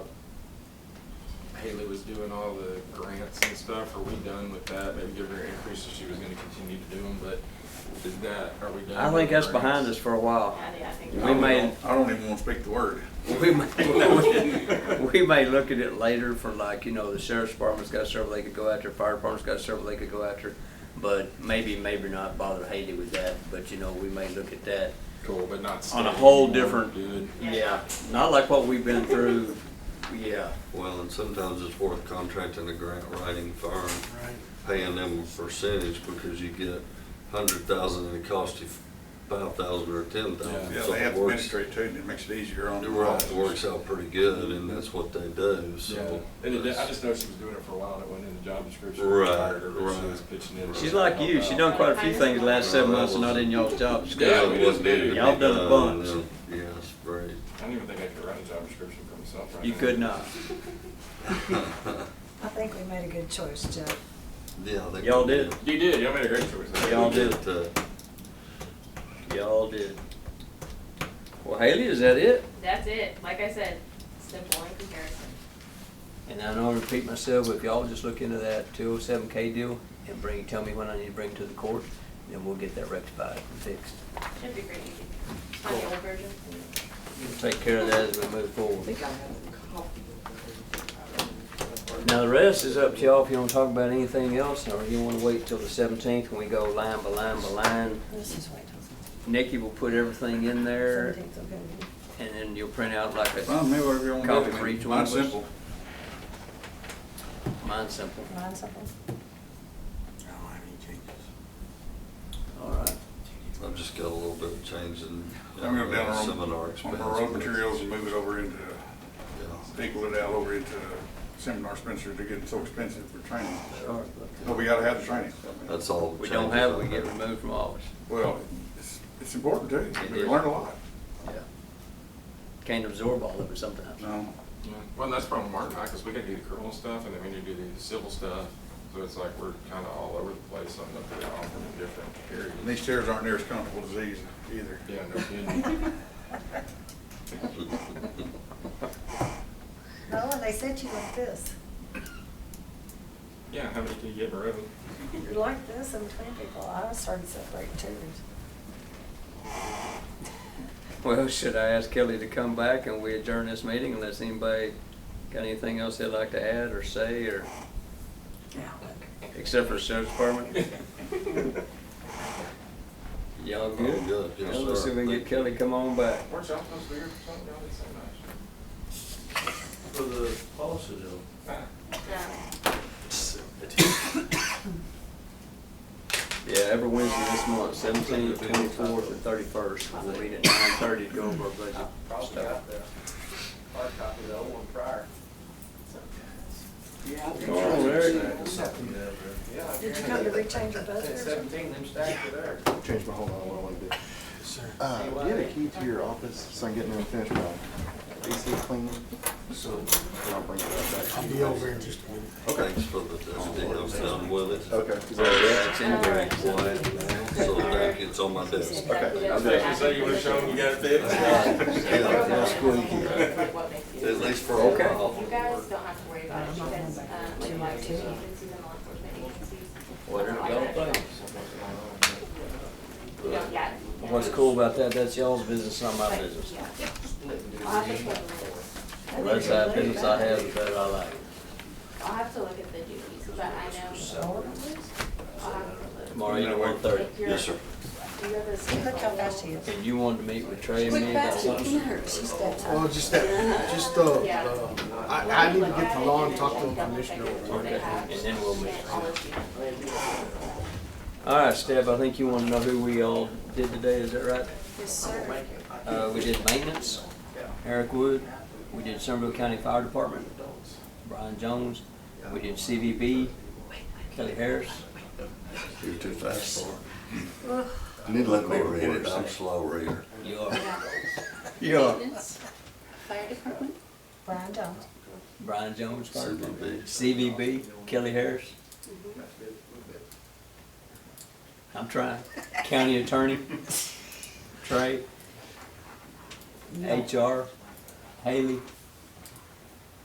Haley was doing all the grants and stuff, are we done with that? Maybe give her an increase if she was gonna continue to do them, but is that, are we done? I think with that's the behind us grants? for a while. I I think. We you're I right. don't may- even- I don't even want to speak the word. We may, we may look at it later for like, you know, the sheriff's department's got several they could go after, fire department's got several they could go after. But maybe, maybe not bother Haley with that, but you know, we may look at that. Cool, but not. On a state whole anymore, different- Good. Yeah. Not like what we've been through, yeah. Well, and sometimes it's worth contracting a grant writing firm, paying them a percentage because you get hundred thousand and it costs you five thousand or ten thousand. Yeah, So they have it to works, administer it too, and it makes it easier on. it the works- providers. it works out pretty good and that's what they do, Yeah, so. and it, I that's- just know she was doing it for a while, and it wasn't in the job description. Right, I hired her, but She right. was pitching in. She's like you, she done quite a few things the last seven months and not in y'all's job Yeah, description. we what just needed to do. be Y'all done a bunch. and, Yeah, it's great. I don't even think I could write a job description for myself right You now. could not. I think we made a good choice, Jeff. Yeah, they. Y'all did. You did, y'all made a great choice. We uh, Y'all did. that. Y'all did. Well, Haley, is that it? That's it, like I said, simple in comparison. And I know I repeat myself, but if y'all just look into that two oh seven K deal and bring, tell me when I need to bring it to the court, then we'll get that rectified and fixed. Should be pretty easy. On the old version. We'll take care of that as we move I forward. think I have a copy of that. Now, the rest is up to y'all if you wanna talk about anything else, or you wanna wait till the seventeenth when we go line by line by line. This is white house. Nikki will put everything in there, Seventeenth's okay. and then you'll print out like Well, a, maybe whatever you want to do. Copy I mean, for each one of mine's us. simple. mine's simple. Mine's simple. I don't have any changes. All right. I've just got a little bit of change in. uh, I'm going down our Seminar own, some of our own expense. materials and move it over into, Yeah. equal it out over into seminar Spencer to get it so expensive for training. Sure, but But we gotta have the training. That's all. We don't changes have, I we get removed from office. Well, it's, it's important too. It We is. learn a lot. Yeah. Can't absorb all of it sometimes. No. Yeah. Well, and that's probably Martin and I, because we gotta do the criminal stuff, and then we need to do the civil stuff, so it's like we're kinda all over the place, on am looking at all from the different areas. And these chairs aren't near as comfortable as these either. Yeah, no kidding. No, and they said you like this. Yeah, how many can you get in a row? You're like this in between people. I started separating chairs. Well, should I ask Kelly to come back and we adjourn this meeting unless anybody got anything else they'd like to add or say or, Yeah. except for the sheriff's department? Y'all good? All good, yes, Well, Let's sir. see if we can get Thank you. Kelly to come on back. Weren't y'all supposed to be here for something, y'all did so much? For the policy though. Ah. Um, Yeah, every Wednesday this month, seventeenth, twenty-fourth, and thirty-first. We'll meet at nine thirty to go over our budget Probably stuff. got the hard copy of the old one prior. Yeah. I think Oh, so. there you go. Yeah. Did you come to rechange your budget or something? Seventeen, them stacks were there. Change my whole mind, what I want to do. Uh, do you have a key to your office so I can get in there and finish my AC cleaning? So, and I'll bring it back. I'll be over in just a minute. Okay. Thanks for the, Oh, that's I'm done with it. Okay. Is that all right? It's in there. Quiet now, so that it's on my desk. exactly I was what actually saying, you would've shown you got it fixed. yeah, Yeah, Like what makes you. At least for a Okay. while. You guys don't have to worry about it because, um, like my two agencies and law enforcement agencies. Whatever y'all think. You don't- yeah. What's cool about that, that's y'all's business, not my Like, business. yeah. Split I'll and have to do look it. at the- The less that business I have, the better I like. I'll have to look at the duties, but I know. I'll have to look. Tomorrow, you know, one thirty. If you're- Yes, sir. Do you have a Look schedule? how fast she is. And you wanted to meet with Trey and Quick, me about fast, it something? can hurt. She's that tight. Well, just that, just, uh, Yeah. uh, I, I need to get the law and talk to the commissioner. over They it. have. And then we'll move. All of you. All right, Steph, I think you want to know who we all did today, is that right? Yes, sir. Uh, we did maintenance, Eric Wood, we did Somerville County Fire Department, Brian Jones, we did CVB, Kelly Harris, You're too fast for it. Need to let me read it, I'm a slow reader. you are, Yeah. Maintenance, Fire department? Brian Jones. Brian Jones, Fire Department. CBB. CVB, Kelly Harris. I'm trying, county attorney, Trey, HR, Haley,